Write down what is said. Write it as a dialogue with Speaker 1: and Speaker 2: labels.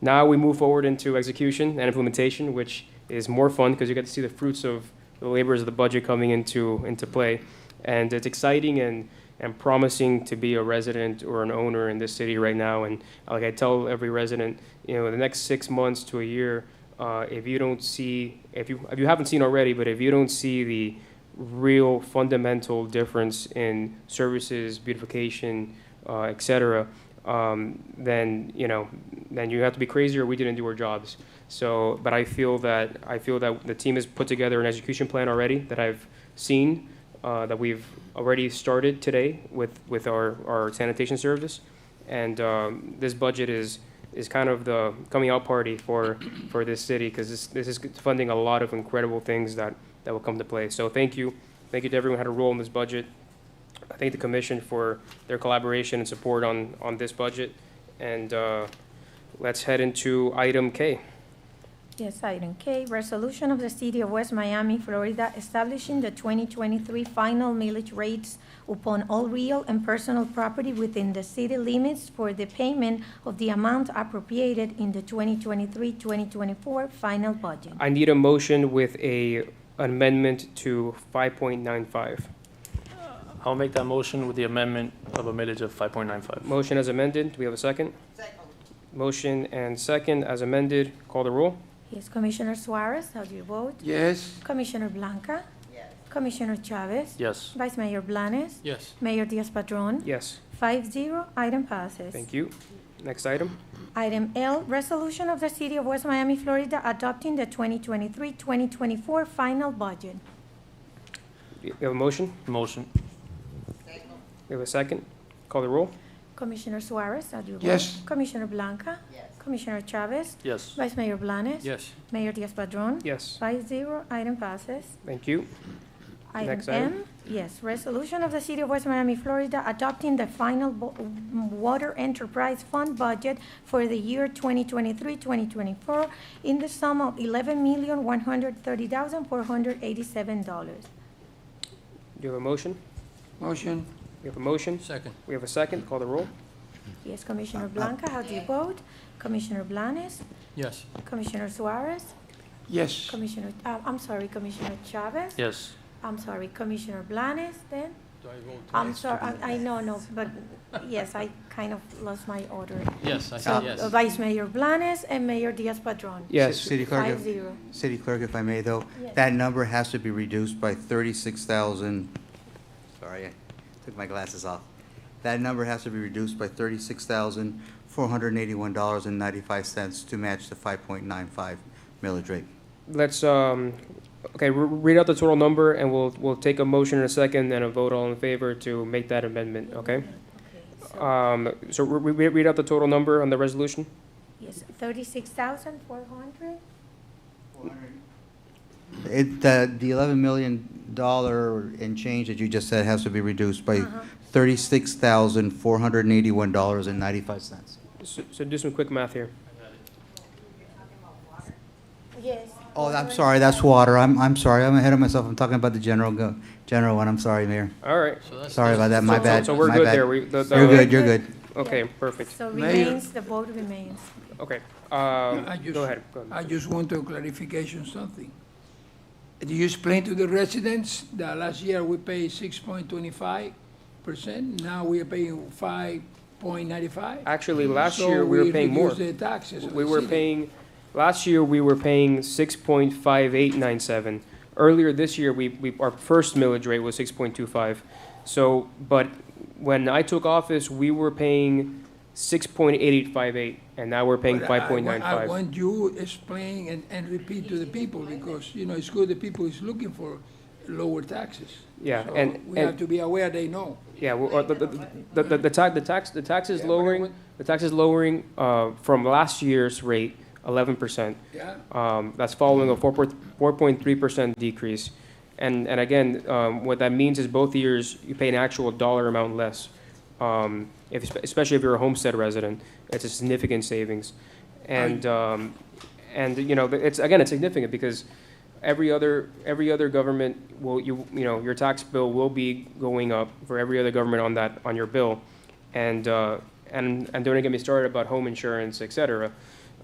Speaker 1: Now we move forward into execution and implementation, which is more fun because you get to see the fruits of the labors of the budget coming into, into play. And it's exciting and, and promising to be a resident or an owner in this city right now. And like I tell every resident, you know, the next six months to a year, uh, if you don't see, if you, if you haven't seen already, but if you don't see the real fundamental difference in services, beautification, uh, et cetera, um, then, you know, then you have to be crazy or we didn't do our jobs. So, but I feel that, I feel that the team has put together an execution plan already that I've seen, uh, that we've already started today with, with our, our sanitation service. And um, this budget is, is kind of the coming out party for, for this city because this, this is funding a lot of incredible things that, that will come to play. So thank you. Thank you to everyone who had a role in this budget. I thank the commission for their collaboration and support on, on this budget. And uh, let's head into item K.
Speaker 2: Yes, item K, resolution of the City of West Miami, Florida, establishing the 2023 final millage rates upon all real and personal property within the city limits for the payment of the amount appropriated in the 2023-2024 final budget.
Speaker 1: I need a motion with a amendment to 5.95.
Speaker 3: I'll make that motion with the amendment of a millage of 5.95.
Speaker 1: Motion as amended. Do we have a second? Motion and second as amended. Call the roll.
Speaker 2: Yes, Commissioner Suarez, how do you vote?
Speaker 4: Yes,
Speaker 2: Commissioner Blanca? Commissioner Chavez?
Speaker 3: Yes.
Speaker 2: Vice Mayor Blanes?
Speaker 3: Yes.
Speaker 2: Mayor Diaz-Padrón?
Speaker 1: Yes.
Speaker 2: Five zero, item passes.
Speaker 1: Thank you. Next item.
Speaker 2: Item L, resolution of the City of West Miami, Florida, adopting the 2023-2024 final budget.
Speaker 1: We have a motion.
Speaker 3: Motion.
Speaker 1: We have a second. Call the roll.
Speaker 2: Commissioner Suarez, how do you vote?
Speaker 4: Yes.
Speaker 2: Commissioner Blanca? Yes. Commissioner Chavez?
Speaker 3: Yes.
Speaker 2: Vice Mayor Blanes?
Speaker 3: Yes.
Speaker 2: Mayor Diaz-Padrón?
Speaker 1: Yes.
Speaker 2: Five zero, item passes.
Speaker 1: Thank you.
Speaker 2: Item
Speaker 1: Next item.
Speaker 2: M, yes, resolution of the City of West Miami, Florida, adopting the final bo- water enterprise fund budget for the year 2023-2024 in the sum of $11,130,487.
Speaker 1: Do you have a motion?
Speaker 4: motion,
Speaker 1: We have a motion.
Speaker 3: Second.
Speaker 1: We have a second. Call the roll.
Speaker 2: Yes,
Speaker 5: Uh,
Speaker 2: Commissioner Blanca, how do you vote? Commissioner Blanes?
Speaker 3: Yes.
Speaker 2: Commissioner Suarez?
Speaker 4: yes,
Speaker 2: Commissioner, uh, I'm sorry, Commissioner Chavez?
Speaker 3: Yes.
Speaker 2: I'm sorry, Commissioner Blanes then? I'm sorry, I I know, no, but yes, I kind of lost my order.
Speaker 3: Yes, I
Speaker 2: So uh, Vice Mayor Blanes and Mayor Diaz-Padrón.
Speaker 1: Yes.
Speaker 5: City Clerk,
Speaker 2: Five
Speaker 5: if-
Speaker 2: zero.
Speaker 5: City Clerk, if I may, though,
Speaker 2: Yes.
Speaker 5: that number has to be reduced by thirty-six thousand, sorry, I took my glasses off. That number has to be reduced by thirty-six thousand, four hundred and eighty-one dollars and ninety-five cents to match the five point nine five millage rate.
Speaker 1: Let's, um, okay, re- read out the total number and we'll, we'll take a motion in a second and a vote all in favor to make that amendment, okay? Um, so re- re- read out the total number on the resolution?
Speaker 2: Yes, thirty-six thousand four hundred?
Speaker 5: It, the, the eleven million dollar and change that you just said has to be reduced by
Speaker 2: Uh-huh.
Speaker 5: thirty-six thousand, four hundred and eighty-one dollars and ninety-five cents.
Speaker 1: So, so do some quick math here.
Speaker 2: Yes.
Speaker 5: Oh, I'm sorry, that's water. I'm, I'm sorry, I'm ahead of myself. I'm talking about the general, go, general one. I'm sorry, Mayor.
Speaker 1: All right.
Speaker 5: Sorry about that, my
Speaker 1: So-
Speaker 5: bad.
Speaker 1: So we're
Speaker 5: my
Speaker 1: good
Speaker 5: bad.
Speaker 1: there. We, the, the.
Speaker 5: You're good, you're good.
Speaker 1: Okay, perfect.
Speaker 2: So
Speaker 4: Mayor.
Speaker 2: remains, the vote remains.
Speaker 1: Okay, um,
Speaker 6: I just-
Speaker 1: go ahead. go ahead.
Speaker 6: I just want a clarification something. Did you explain to the residents that last year we paid six point twenty-five percent, now we are paying five point ninety-five?
Speaker 1: Actually, last year we were paying more.
Speaker 6: So we reduced the taxes. of
Speaker 1: We
Speaker 6: the
Speaker 1: were
Speaker 6: city.
Speaker 1: paying, last year, we were paying six point five eight nine seven. Earlier this year, we, we, our first millage rate was six point two five. So, but when I took office, we were paying six point eight eight five eight, and now we're paying
Speaker 6: But I- I
Speaker 1: five point nine
Speaker 6: want- I
Speaker 1: five.
Speaker 6: want you explain and, and repeat to the people, because, you know, it's good the people is looking for lower taxes.
Speaker 1: Yeah,
Speaker 6: So
Speaker 1: and-
Speaker 6: We have
Speaker 1: and-
Speaker 6: to be aware they know.
Speaker 1: Yeah, well, uh, the, the, the, the- the tax, the tax, the tax is
Speaker 6: Yeah, but I
Speaker 1: lowering,
Speaker 6: want-
Speaker 1: the tax is lowering, uh, from last year's rate, eleven percent.
Speaker 6: Yeah,
Speaker 1: Um, that's following a four point, four point three percent decrease. And, and again, um, what that means is both years, you pay an actual dollar amount less. Um, if, especially if you're a homestead resident, it's a significant savings. And, um, and, you know, it's, again, it's significant because every other, every other government will, you, you know, your tax bill will be going up for every other government on that, on your bill. And, uh, and, and don't even get me started about home insurance, et cetera.